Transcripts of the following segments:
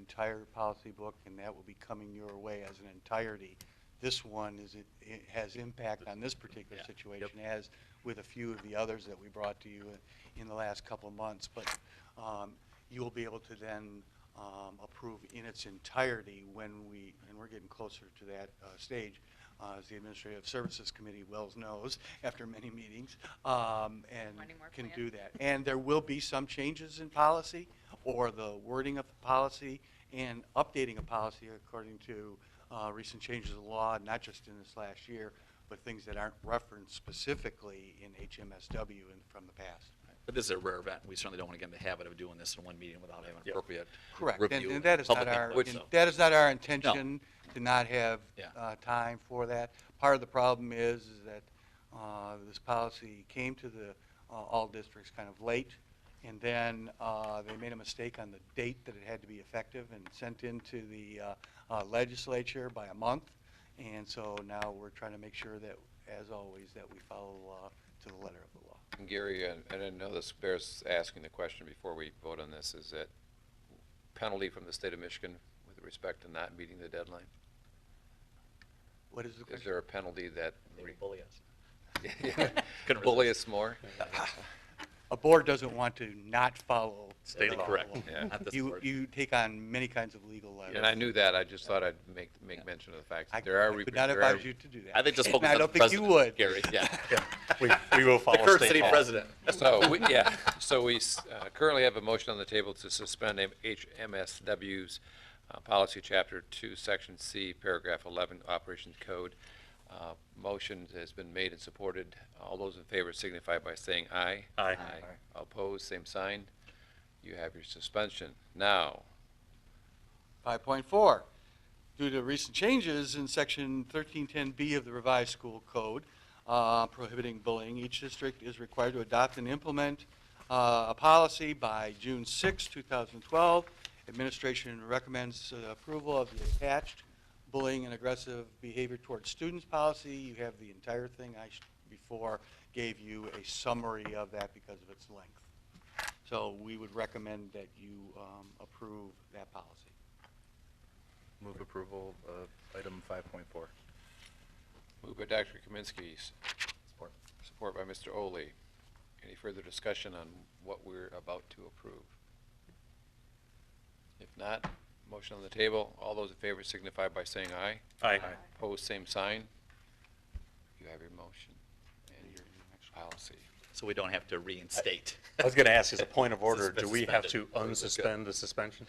entire policy book, and that will be coming your way as an entirety. This one is, it- it has impact on this particular Yeah, yep. situation, as with a few of the others that we brought to you in- in the last couple of months. But um, you will be able to then um, approve in its entirety when we, and we're getting closer to that uh, stage, uh, as the Administrative Services Committee well knows, after many meetings, um, and Wanting more can plan. do that. And there will be some changes in policy, or the wording of the policy, and updating a policy according to uh, recent changes in law, not just in this last year, but things that aren't referenced specifically in HMSW and from the past. But this is a rare event. We certainly don't want to get in the habit of doing this in one meeting without having appropriate Correct, and- review. and that is not public our, input, in- so. that is not our intention, to not have Yeah. uh, time for that. Part of the problem is, is that uh, this policy came to the, uh, all districts kind of late, and then uh, they made a mistake on the date that it had to be effective and sent into the uh, uh, legislature by a month, and so now we're trying to make sure that, as always, that we follow the law to the letter of the law. And Gary, I I didn't know this bears asking the question before we vote on this, is that penalty from the state of Michigan with respect to not meeting the deadline? What is the Is question? there a penalty that? They would bully us. Couldn't Bully resist. us more? A board doesn't want to not follow. the State letter of law. the Correct. law. Yeah. Not this You, board. you take on many kinds of legal liability. And I knew that, I just thought I'd make, Yeah. make mention of the fact I that there are. I re- could not there are- advise you to do that. I think just And focus on the I don't think you president, would. Gary, yeah. We, we will The follow current state city law. president. So, we- yeah, so we s- uh, currently have a motion on the table to suspend M- HMSW's uh, policy, Chapter 2, Section C, Paragraph 11, Operations Code. Uh, Motion has been made and supported. All those in favor signify by saying aye. Aye. Opposed, same sign. You have your suspension. Now, 5.4, due to recent changes in Section 1310B of the revised school code uh, prohibiting bullying, each district is required to adopt and implement uh, a policy by June 6, 2012. Administration recommends uh, approval of the attached bullying and aggressive behavior towards students policy. You have the entire thing. I sh- before gave you a summary of that because of its length. So we would recommend that you um, approve that policy. Move approval of item 5.4. moved by Dr. Kaminsky, s- Support. support by Mr. Oley. Any further discussion on what we're about to approve? If not, motion on the table. All those in favor signify by saying aye. Aye. Opposed, same sign. You have your motion and your policy. So we don't have to reinstate. I was going to ask, as a point of order, do Suspend- we have to suspended. unsuspend the suspension?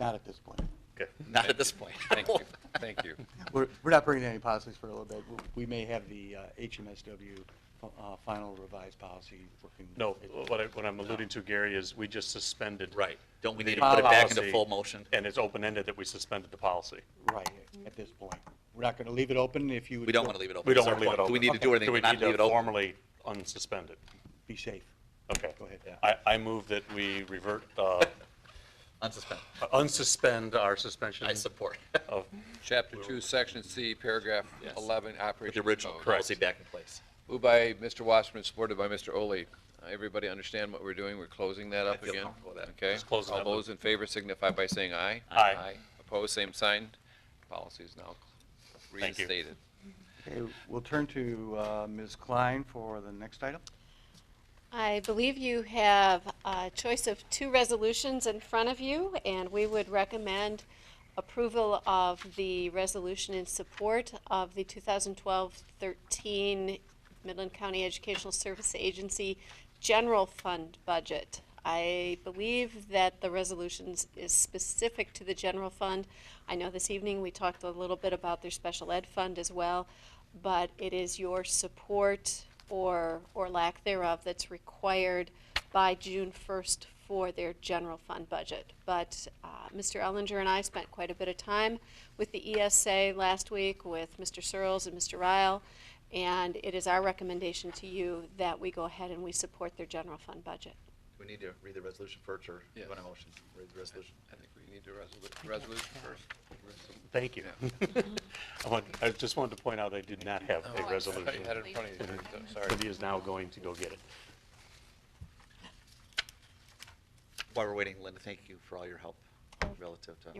Not at this point. Okay. Not at this point. Thank you, thank you. We're, we're not bringing any policies for a little bit. We may have the uh, HMSW uh, final revised policy working. No, what I, what I'm alluding to, Gary, is we just suspended. Right. Don't we the need to put it back into policy, full motion? And it's open-ended that we suspended the policy. Right, at this point. We're not going to leave it open if you. would We don't want to leave it open. We don't That's our want to point. leave it open. Do we need to do anything? Do we not need leave it to open? formally unsuspend it? Be safe. Okay. Go ahead. I, I move that we revert, uh, Unsuspend. unsuspend our suspension I support. of, Chapter 2, Section C, Paragraph Yes. 11, Put Operation the original Oh, Code. policy back in place. Moved by Mr. Wasserman, supported by Mr. Oley. Uh, Everybody understand what we're doing? We're closing that I up feel again? comfortable with that. Okay? Just closing All that loop. those in favor signify by saying aye. Aye. Opposed, same sign. Policy is now you. reinstated. Okay, we'll turn to uh, Ms. Klein for the next item. I believe you have a choice of two resolutions in front of you, and we would recommend approval of the resolution in support of the 2012-13 Midland County Educational Service Agency General Fund Budget. I believe that the resolutions is specific to the general fund. I know this evening we talked a little bit about their special ed fund as well, but it is your support or, or lack thereof that's required by June 1st for their general fund budget. But uh, Mr. Ellinger and I spent quite a bit of time with the ESA last week with Mr. Searles and Mr. Ryle, and it is our recommendation to you that we go ahead and we support their general fund budget. Do we need to read the resolution first or do you Yes. want a motion? Read the resolution. I think we need to resolu- resolution first. thank you. I want, I just wanted to point out I did not have Oh, a I resolution. had it in front of you. I'm Sorry. Cindy is now going to go get it. While we're waiting, Linda, thank you for all your help relative to